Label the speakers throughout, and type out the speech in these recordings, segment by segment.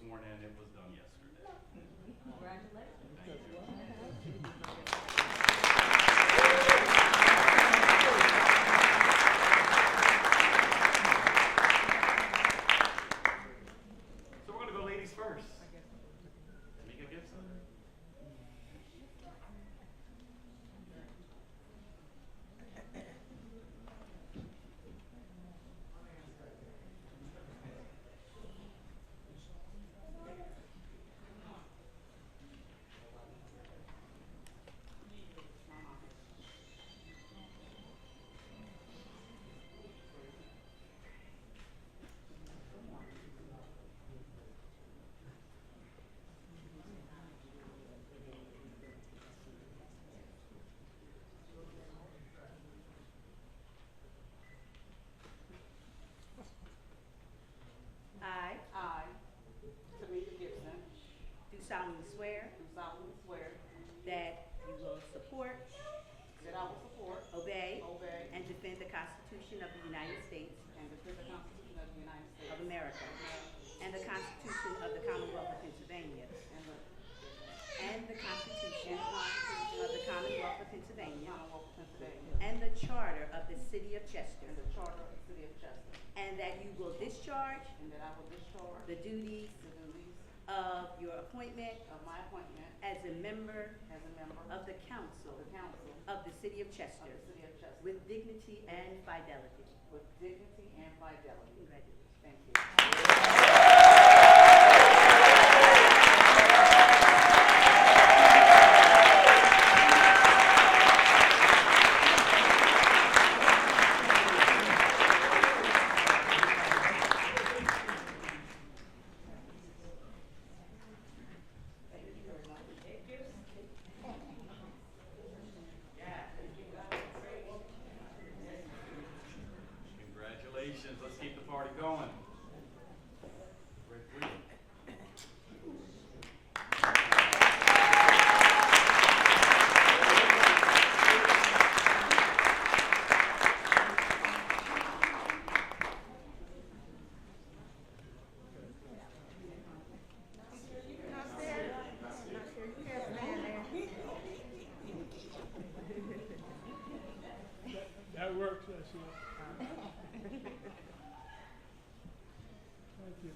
Speaker 1: sworn in, it was done yesterday.
Speaker 2: Congratulations.
Speaker 1: So we're gonna go ladies first. Tamika Gibson.
Speaker 3: I
Speaker 2: I, Tamika Gibson,
Speaker 3: do solemnly swear
Speaker 2: do solemnly swear
Speaker 3: that you will support,
Speaker 2: that I will support,
Speaker 3: obey,
Speaker 2: obey,
Speaker 3: and defend the Constitution of the United States
Speaker 2: and defend the Constitution of the United States
Speaker 3: of America and the Constitution of the Commonwealth of Pennsylvania
Speaker 2: and the
Speaker 3: and the Constitution of the Commonwealth of Pennsylvania
Speaker 2: Commonwealth of Pennsylvania
Speaker 3: and the Charter of the City of Chester
Speaker 2: and the Charter of the City of Chester,
Speaker 3: and that you will discharge
Speaker 2: and that I will discharge
Speaker 3: the duties
Speaker 2: the duties
Speaker 3: of your appointment
Speaker 2: of my appointment
Speaker 3: as a member
Speaker 2: as a member
Speaker 3: of
Speaker 2: of
Speaker 3: the council
Speaker 2: the Council
Speaker 3: of the City of
Speaker 2: of
Speaker 3: Chester
Speaker 2: the City of Chester
Speaker 3: with dignity and fidelity.
Speaker 2: with dignity and fidelity.
Speaker 3: Congratulations.
Speaker 2: Thank you.
Speaker 1: Congratulations, let's keep the party going. Rick Green.
Speaker 4: That works, that's it. Thank you.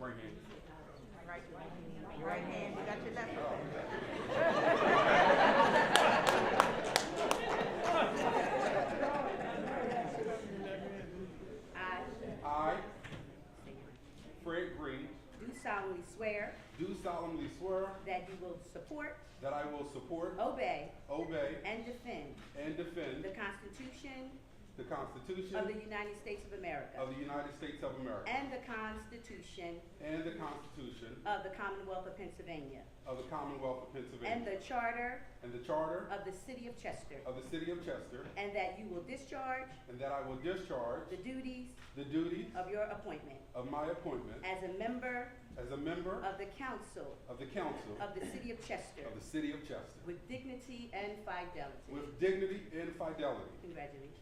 Speaker 1: Right hand.
Speaker 5: Your right hand, you got your left hand.
Speaker 3: I
Speaker 6: I, Fred Green,
Speaker 3: do solemnly swear
Speaker 6: do solemnly swear
Speaker 3: that you will support,
Speaker 6: that I will support,
Speaker 3: obey,
Speaker 6: obey,
Speaker 3: and defend
Speaker 6: and defend
Speaker 3: the Constitution
Speaker 6: the Constitution
Speaker 3: of the United States of America
Speaker 6: of the United States of America
Speaker 3: and the Constitution
Speaker 6: and the Constitution
Speaker 3: of the Commonwealth of Pennsylvania
Speaker 6: of the Commonwealth of
Speaker 3: and the
Speaker 6: Pennsylvania
Speaker 3: Charter
Speaker 6: and the Charter
Speaker 3: of the City of Chester,
Speaker 6: of the City of Chester,
Speaker 3: and that you will discharge
Speaker 6: and that I will discharge
Speaker 3: the duties
Speaker 6: the duties
Speaker 3: of your appointment
Speaker 6: of my appointment
Speaker 3: as a member
Speaker 6: as a member
Speaker 3: of the Council
Speaker 6: of the Council
Speaker 3: of the City of Chester
Speaker 6: of the City of Chester
Speaker 3: with dignity and fidelity.
Speaker 6: with dignity and fidelity.
Speaker 3: Congratulations.